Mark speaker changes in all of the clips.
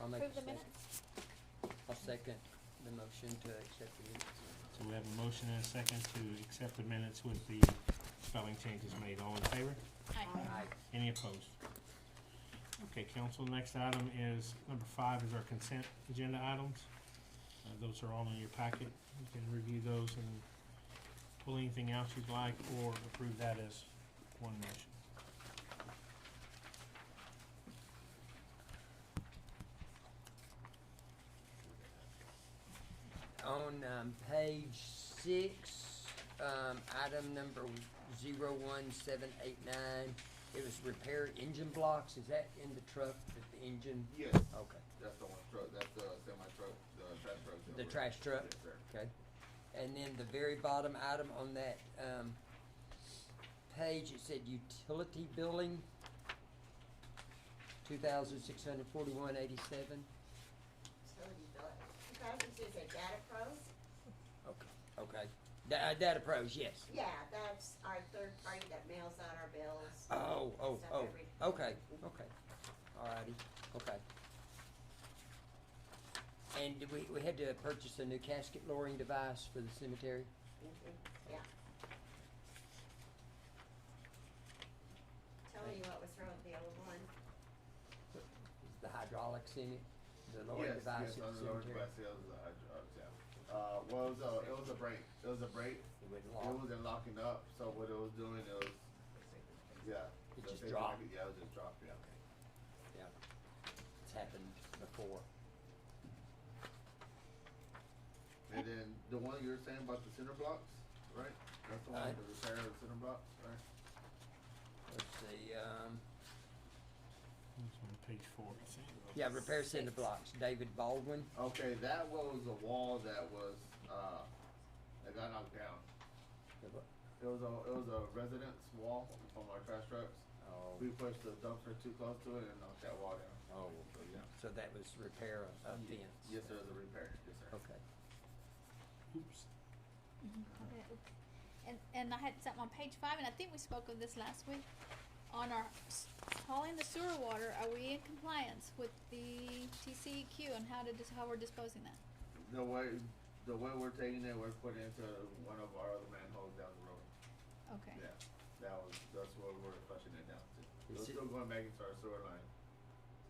Speaker 1: I'll make a
Speaker 2: Approve the
Speaker 1: second,
Speaker 2: minutes?
Speaker 1: I'll second the motion to accept the minutes.
Speaker 3: So we have a motion and a second to accept the minutes with the spelling changes made. All in favor?
Speaker 2: Aye.
Speaker 1: Aye.
Speaker 3: Any opposed? Okay, council, next item is, number five is our consent agenda items. Uh, those are all in your packet. You can review those and pull anything else you'd like or approve that as one motion.
Speaker 1: On, um, page six, um, item number zero one seven eight nine, it was repair engine blocks, is that in the truck, that the engine,
Speaker 4: Yes,
Speaker 1: okay,
Speaker 4: that's the one truck, that's the semi truck, the trash truck. that
Speaker 1: the
Speaker 4: we're-
Speaker 1: trash truck?
Speaker 4: Yes, sir.
Speaker 1: Okay. And then the very bottom item on that, um, page, it said utility billing, two thousand six hundred forty-one eighty-seven.
Speaker 5: Utility bill, you guys can do the data pros,
Speaker 1: Okay, okay. Da- uh, data pros, yes.
Speaker 5: yeah, that's our third party that mails out our bills.
Speaker 1: Oh, oh,
Speaker 5: Stuff
Speaker 1: oh,
Speaker 5: every-
Speaker 1: okay, okay. Alrighty, okay. And did we, we had to purchase a new casket lowering device for the cemetery?
Speaker 5: Mhm, Yeah. Tell me what was wrong with the old one,
Speaker 1: Is the hydraulics in it? The lowering
Speaker 4: Yes,
Speaker 1: device
Speaker 4: yes,
Speaker 1: at the
Speaker 4: under Lord
Speaker 1: cemetery?
Speaker 4: Bless, it was a hydro- uh, yeah. Uh, well, it was a, it was a break, it was a break,
Speaker 1: It wouldn't
Speaker 4: it
Speaker 1: lock.
Speaker 4: wasn't locking up, so what it was doing, it was, yeah.
Speaker 1: It
Speaker 4: the
Speaker 1: just
Speaker 4: paper-
Speaker 1: dropped.
Speaker 4: Yeah, it was just dropped, yeah.
Speaker 1: Yeah. It's happened before.
Speaker 4: And then the one you were saying about the center blocks, right? That's the one,
Speaker 1: Aye.
Speaker 4: with the repair of the center blocks, right?
Speaker 1: Let's see, um,
Speaker 3: It's on page four, I think.
Speaker 1: yeah, repair center blocks, David Baldwin.
Speaker 4: Okay, that was a wall that was, uh, that got knocked down. It was a, it was a residence wall from our trash trucks.
Speaker 1: Oh,
Speaker 4: We pushed the dumpster too close to it and knocked that wall down.
Speaker 1: oh, so that was repair of, of fence.
Speaker 4: Yes, sir, the repair, yes, sir.
Speaker 1: Okay.
Speaker 3: Oops.
Speaker 2: Mm-hmm. And, and I had something on page five, and I think we spoke of this last week, on our s- hauling the sewer water, are we in compliance with the TCEQ and how to, dis- how we're disposing that?
Speaker 4: The way, the way we're taking it, we're putting it into one of our other manholes down the road.
Speaker 2: Okay,
Speaker 4: Yeah, that was, that's what we're flushing it down to. It was
Speaker 1: Is it-
Speaker 4: still going back into our sewer line.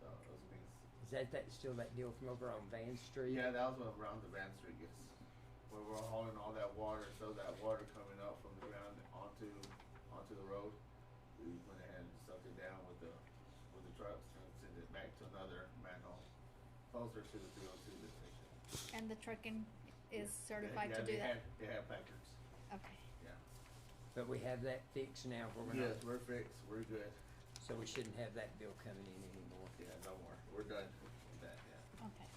Speaker 4: So it was being,
Speaker 1: Is that, that, still that deal from over on Van Street?
Speaker 4: yeah, that was what around the Van Street gets. Where we're hauling all that water, so that water coming up from the ground onto, onto the road. We went ahead and sucked it down with the, with the trucks and sent it back to another manhole closer to the three oh two station.
Speaker 2: and the trucking is certified
Speaker 4: yeah,
Speaker 2: to
Speaker 4: they
Speaker 2: do that?
Speaker 4: Had, they had placards.
Speaker 2: Okay,
Speaker 1: But we have that fixed now where we're not,
Speaker 4: Oh, Yes, we're fixed. We're good.
Speaker 1: so we shouldn't have that bill coming in anymore.
Speaker 4: Yeah, no more. We're done with that. Yeah.
Speaker 2: okay.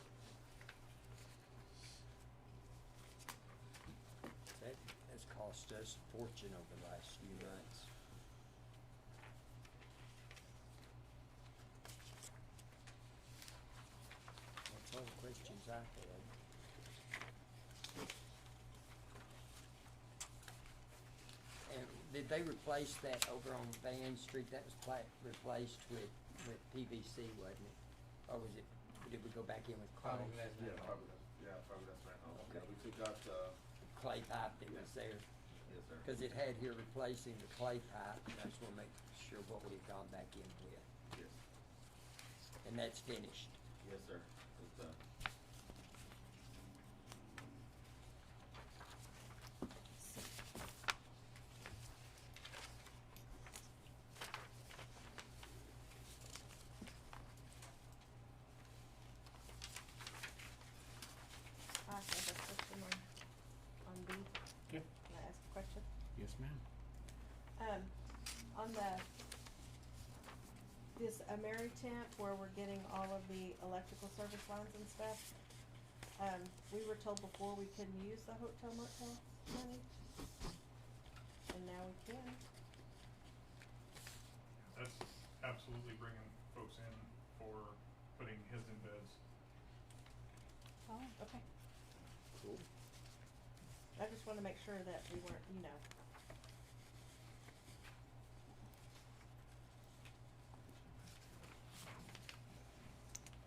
Speaker 1: That has cost us a fortune over the last few months. That's all the questions I had. And did they replace that over on Van Street? That was pla- replaced with, with PVC, wasn't it? Or was it, did we go back in with clay?
Speaker 6: Probably that's
Speaker 4: Yeah,
Speaker 6: not right.
Speaker 4: probably. that's- Yeah, probably that's right. Oh,
Speaker 1: Okay.
Speaker 4: Yeah, we took out the.
Speaker 1: Clay pipe that was there?
Speaker 4: Yes, sir.
Speaker 1: Cause it had here replacing the clay pipe, and I just wanna make sure what we've gone back in with,
Speaker 4: Yes,
Speaker 1: and that's finished.
Speaker 4: yes, sir. It's uh, done.
Speaker 7: Uh, I have a question on, on B.
Speaker 3: Yeah.
Speaker 7: Can I ask a question?
Speaker 3: Yes, ma'am.
Speaker 7: Um, on the, this Ameritemp where we're getting all of the electrical service lines and stuff, um, we were told before we couldn't use the hotel motel money. And now we can.
Speaker 8: That's absolutely bringing folks in for putting his in beds.
Speaker 2: Oh,
Speaker 7: Okay.
Speaker 1: Cool.
Speaker 7: I just wanna make sure that we weren't, you know,